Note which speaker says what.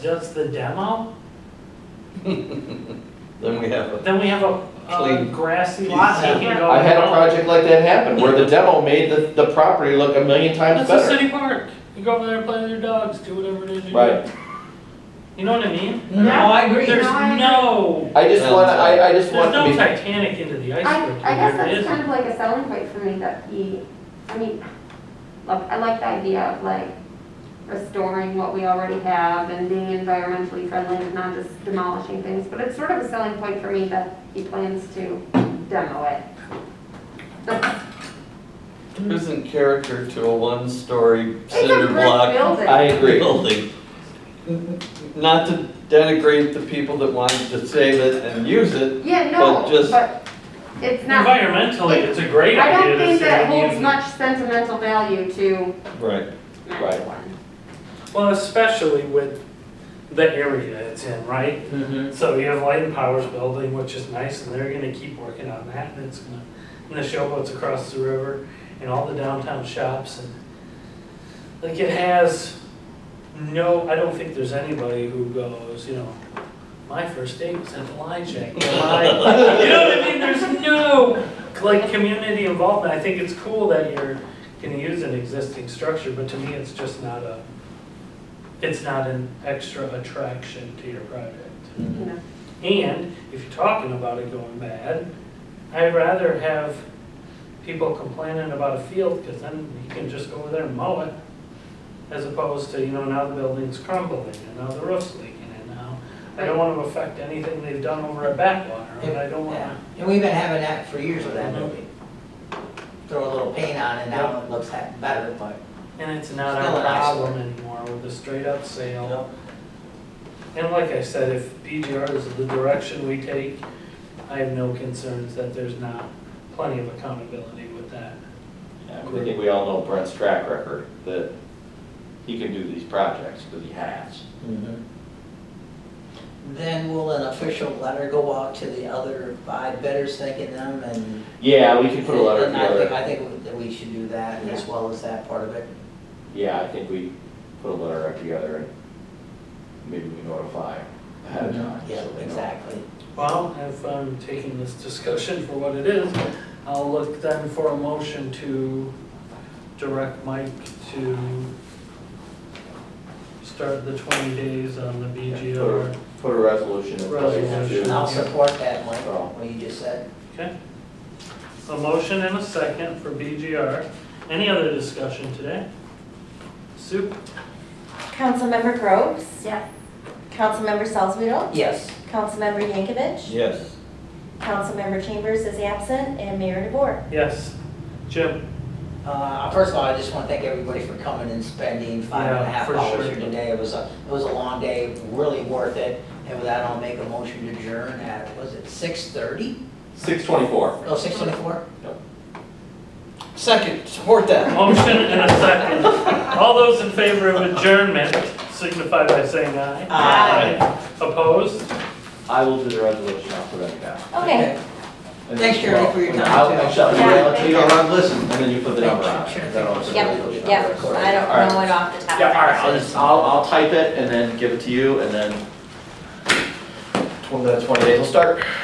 Speaker 1: does the demo,
Speaker 2: Then we have a,
Speaker 1: then we have a, a
Speaker 2: Clean.
Speaker 1: grassy lot that can go.
Speaker 3: I had a
Speaker 1: around.
Speaker 3: project like that happen, where the demo made the, the property look a million times
Speaker 1: That's a
Speaker 3: better.
Speaker 1: city park. You go over there, play with your dogs, do whatever it is you do.
Speaker 3: Right,
Speaker 1: You know what I mean?
Speaker 4: No, I agree.
Speaker 1: There's
Speaker 4: No, I agree.
Speaker 1: no,
Speaker 3: I just wanna, I, I just
Speaker 1: there's
Speaker 3: want to
Speaker 1: no
Speaker 3: be,
Speaker 1: Titanic into the
Speaker 5: I,
Speaker 1: iceberg.
Speaker 5: I guess
Speaker 1: here, it
Speaker 5: that's
Speaker 1: isn't.
Speaker 5: kind of like a selling point for me that he, I mean, look, I like the idea of like restoring what we already have and being environmentally friendly and not just demolishing things, but it's sort of a selling point for me that he plans to demo it.
Speaker 2: there isn't character to a one-story
Speaker 5: It's a
Speaker 2: cinder
Speaker 5: brick
Speaker 2: block
Speaker 5: building.
Speaker 3: I agree.
Speaker 2: building. Not to denigrate the people that wanted to save it and use it,
Speaker 5: Yeah,
Speaker 2: But
Speaker 5: no,
Speaker 2: just-
Speaker 5: but it's not,
Speaker 1: Environmentally, it's a great
Speaker 5: I
Speaker 1: idea
Speaker 5: don't
Speaker 1: to
Speaker 5: think
Speaker 1: say.
Speaker 5: that
Speaker 1: we
Speaker 5: holds
Speaker 1: need-
Speaker 5: much sentimental value to
Speaker 2: right,
Speaker 3: Right.
Speaker 5: one.
Speaker 1: Well, especially with the area it's in, right?
Speaker 2: Mm-hmm.
Speaker 1: So you have Light and Powers building, which is nice, and they're gonna keep working on that, and it's gonna, and the showboats across the river, and all the downtown shops, and like it has no, I don't think there's anybody who goes, you know, my first date was at the Lion Shack. My- You know what I mean? There's no like community involvement. I think it's cool that you're gonna use an existing structure, but to me, it's just not a, it's not an extra attraction to your project.
Speaker 5: You know,
Speaker 1: And if you're talking about it going bad, I'd rather have people complaining about a field, because then you can just go over there and mow it, as opposed to, you know, now the building's crumbling, and now the roof's leaking, and now, I don't want to affect anything they've done over at Backwater, and I don't want
Speaker 4: Yeah,
Speaker 1: to.
Speaker 4: and we've been having that for years with that building. Throw a little paint on it, now it looks ha- better, but.
Speaker 1: And it's not
Speaker 4: Still
Speaker 1: our
Speaker 4: an eyesore.
Speaker 1: problem anymore with the straight-up sale. And like I said, if BGR is the direction we take, I have no concerns that there's not plenty of accountability with that.
Speaker 3: I think we all know Brent's track record, that he can do these projects, because he has.
Speaker 1: Mm-hmm.
Speaker 4: Then will an official letter go out to the other five bidders thanking them and?
Speaker 3: Yeah, we could put a letter
Speaker 4: And I think,
Speaker 3: together,
Speaker 4: I think that we should do that as well as that part of it.
Speaker 3: yeah, I think we put a letter up together, and maybe we notify ahead of time.
Speaker 4: Yeah,
Speaker 3: so they know.
Speaker 4: exactly.
Speaker 1: Well, if I'm taking this discussion for what it is, I'll look then for a motion to direct Mike to start the 20 days on the BGR.
Speaker 3: Put a resolution in place
Speaker 1: Resolution.
Speaker 3: to.
Speaker 4: And I'll support that, Mike,
Speaker 3: Oh.
Speaker 4: what you just said.
Speaker 1: Okay? A motion and a second for BGR. Any other discussion today? Sue?
Speaker 6: Councilmember Groves.
Speaker 5: Yeah.
Speaker 6: Councilmember Salzweedl.
Speaker 4: Yes.
Speaker 6: Councilmember Yankovic.
Speaker 2: yes.
Speaker 6: Councilmember Chambers is absent and Mayor DeBoer.
Speaker 1: Yes. Jim?
Speaker 4: Uh, First of all, I just want to thank everybody for coming and spending five and a
Speaker 1: Yeah,
Speaker 4: half
Speaker 1: for
Speaker 4: hours
Speaker 1: sure.
Speaker 4: here today. It was a, it was a long day, really worth it. And with that, I'll make a motion to adjourn at, was it six thirty?
Speaker 3: Six twenty-four.
Speaker 4: No, six twenty-four?
Speaker 3: Yep.
Speaker 4: Second, support that.
Speaker 1: Motion and a second. All those in favor of adjournment signify by saying aye.
Speaker 4: Aye.
Speaker 1: Opposed?
Speaker 3: I will do the resolution, I'll put it down.
Speaker 6: Okay.
Speaker 4: Thanks, Jeremy, for your time,
Speaker 3: I'll-
Speaker 4: too.
Speaker 3: I'll shut the
Speaker 6: Yeah,
Speaker 3: mail
Speaker 6: thank
Speaker 3: to you, or I'll listen, and then you put the number on.
Speaker 4: Sure.
Speaker 3: it. Then I'll-
Speaker 6: Yep, yep. I
Speaker 3: All right.
Speaker 6: don't know it off the top of
Speaker 3: Yeah, all
Speaker 6: my
Speaker 3: right, I'll
Speaker 6: head.
Speaker 3: just, I'll, I'll type it and then give it to you, and then, 20 days will start.